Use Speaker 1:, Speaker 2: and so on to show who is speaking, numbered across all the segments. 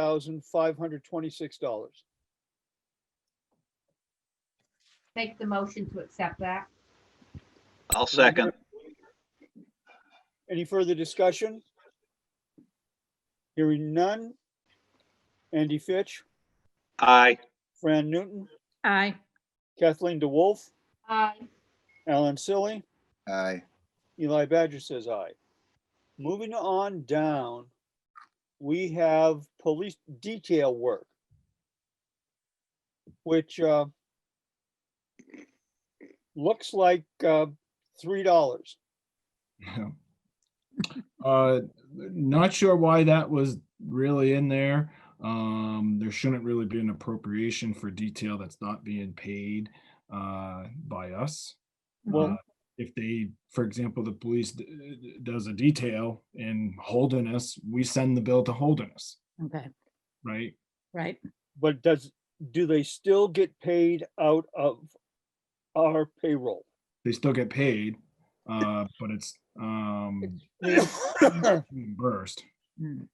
Speaker 1: thousand five hundred twenty-six dollars.
Speaker 2: Make the motion to accept that.
Speaker 3: I'll second.
Speaker 1: Any further discussion? Hearing none. Andy Fitch,
Speaker 3: Aye.
Speaker 1: Fran Newton,
Speaker 4: aye,
Speaker 1: Kathleen DeWolf,
Speaker 2: Aye.
Speaker 1: Alan Silly,
Speaker 5: aye,
Speaker 1: Eli Badger says aye. Moving on down, we have police detail work. Which, uh, looks like, uh, three dollars.
Speaker 6: Yeah. Uh, Not sure why that was really in there. Um, There shouldn't really be an appropriation for detail that's not being paid uh, by us.
Speaker 1: Well,
Speaker 6: Uh, If they, for example, the police d- d- does a detail in Holderness, we send the bill to Holderness,
Speaker 4: okay,
Speaker 6: right?
Speaker 4: right,
Speaker 1: But does, do they still get paid out of our payroll?
Speaker 6: They still get paid, uh, but it's um, reimbursed.
Speaker 4: mm,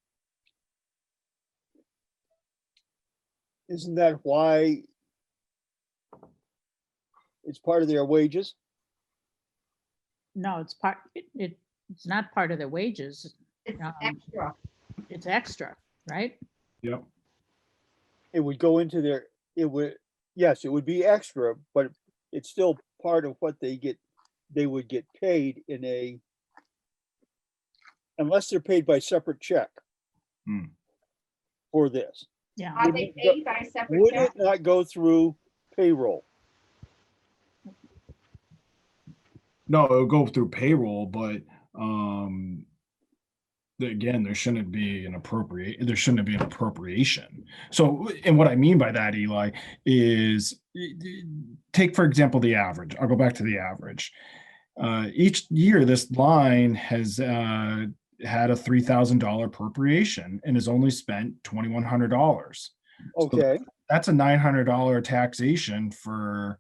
Speaker 1: Isn't that why? It's part of their wages?
Speaker 4: no, it's part, it- it, it's not part of their wages,
Speaker 2: It's
Speaker 4: Um,
Speaker 2: extra.
Speaker 4: it's extra, right?
Speaker 6: Yep.
Speaker 1: It would go into their, it would, yes, it would be extra, but it's still part of what they get, they would get paid in a. Unless they're paid by separate check.
Speaker 6: Hmm.
Speaker 1: For this,
Speaker 4: Yeah,
Speaker 2: Are they paid by a separate
Speaker 1: would
Speaker 2: check?
Speaker 1: it not go through payroll?
Speaker 6: No, it'll go through payroll, but um the- again, there shouldn't be an appropriate, there shouldn't be an appropriation. So, and what I mean by that, Eli, is y- y- take, for example, the average. I'll go back to the average. Uh, each year, this line has uh, had a three thousand dollar appropriation and has only spent twenty-one hundred dollars
Speaker 1: Okay,
Speaker 6: that's a nine hundred dollar taxation for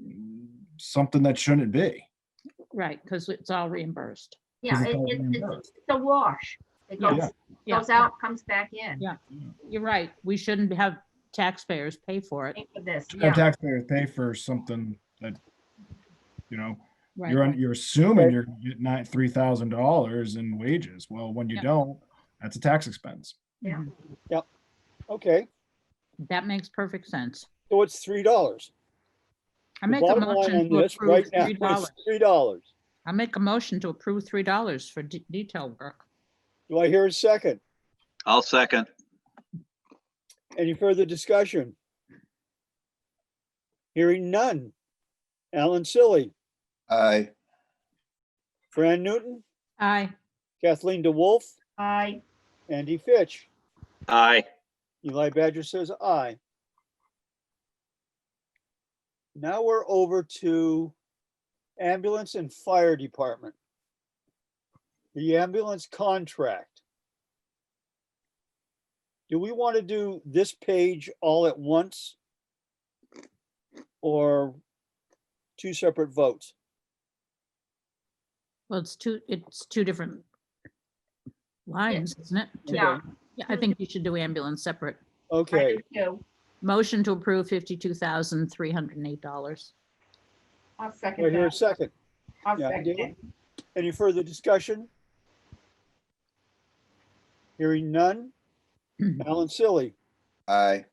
Speaker 6: mm, something that shouldn't be.
Speaker 4: right, because it's all reimbursed.
Speaker 2: Yeah,
Speaker 6: it's
Speaker 2: it-
Speaker 6: all
Speaker 2: it- it's
Speaker 6: reimbursed.
Speaker 2: it's a wash. It
Speaker 6: Yeah.
Speaker 2: goes,
Speaker 4: Yeah.
Speaker 2: goes out, comes back in.
Speaker 4: Yeah. You're right, we shouldn't have taxpayers pay for it.
Speaker 2: Think of this,
Speaker 6: To
Speaker 2: yeah.
Speaker 6: Have taxpayers pay for something that, you know,
Speaker 4: Right,
Speaker 6: you're, un-
Speaker 4: right.
Speaker 6: you're assuming
Speaker 1: Right.
Speaker 6: you're gonna get nine, three thousand dollars in wages. Well, when you
Speaker 4: Yeah.
Speaker 6: don't, that's a tax expense.
Speaker 2: Yeah.
Speaker 4: Mhm.
Speaker 1: okay,
Speaker 4: That makes perfect sense.
Speaker 1: so it's three dollars.
Speaker 4: I
Speaker 1: The
Speaker 4: make a
Speaker 1: bottom line
Speaker 4: motion
Speaker 1: on
Speaker 4: to
Speaker 1: this right
Speaker 4: approve
Speaker 1: now
Speaker 4: three
Speaker 1: is
Speaker 4: dollars.
Speaker 1: Three dollars.
Speaker 4: I make a motion to approve three dollars for de- detail work.
Speaker 1: Do I hear a second?
Speaker 3: I'll second.
Speaker 1: Any further discussion? Hearing none. Alan Silly,
Speaker 5: aye,
Speaker 1: Fran Newton,
Speaker 4: Aye,
Speaker 1: Kathleen DeWolf,
Speaker 2: Aye.
Speaker 1: Andy Fitch.
Speaker 3: Aye.
Speaker 1: Eli Badger says aye. Now we're over to ambulance and fire department. The ambulance contract. Do we want to do this page all at once? Or two separate votes?
Speaker 4: well, it's two, it's two different lines, isn't it? Two-
Speaker 2: Yeah.
Speaker 4: Yeah, I think you should do ambulance separate.
Speaker 2: I
Speaker 1: Okay,
Speaker 2: do too.
Speaker 4: Motion to approve fifty-two thousand, three hundred and eight dollars.
Speaker 2: I'll
Speaker 1: we're
Speaker 2: second
Speaker 1: here a
Speaker 2: that.
Speaker 1: second.
Speaker 2: I'll
Speaker 1: yeah, I
Speaker 2: second
Speaker 1: do.
Speaker 2: it.
Speaker 1: Any further discussion? Hearing none. Alan Silly,
Speaker 5: aye,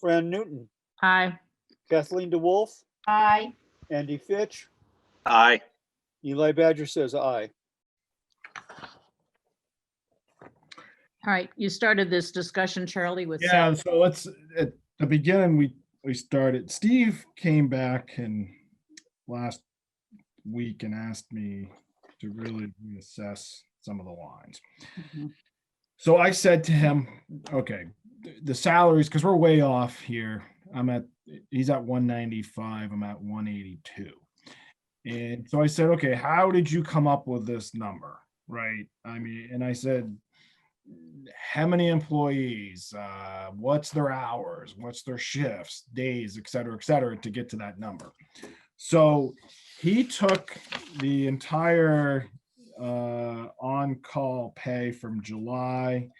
Speaker 1: Fran Newton,
Speaker 4: Aye,
Speaker 1: Kathleen DeWolf,
Speaker 2: Aye.
Speaker 1: Andy Fitch,
Speaker 3: Aye.
Speaker 1: Eli Badger says aye.
Speaker 4: all right, you started this discussion, Charlie, with.
Speaker 6: Yeah, so let's, at the beginning, we, we started, Steve came back and last week and asked me to really reassess some of the lines.
Speaker 4: Mhm.
Speaker 6: So I said to him, okay, th- the salaries, because we're way off here. I'm at, he's at one ninety-five, I'm at one eighty-two. And so I said, okay, how did you come up with this number? Right? I mean, and I said, how many employees, uh, what's their hours, what's their shifts, days, et cetera, et cetera, to get to that number. So he took the entire uh, on-call pay from July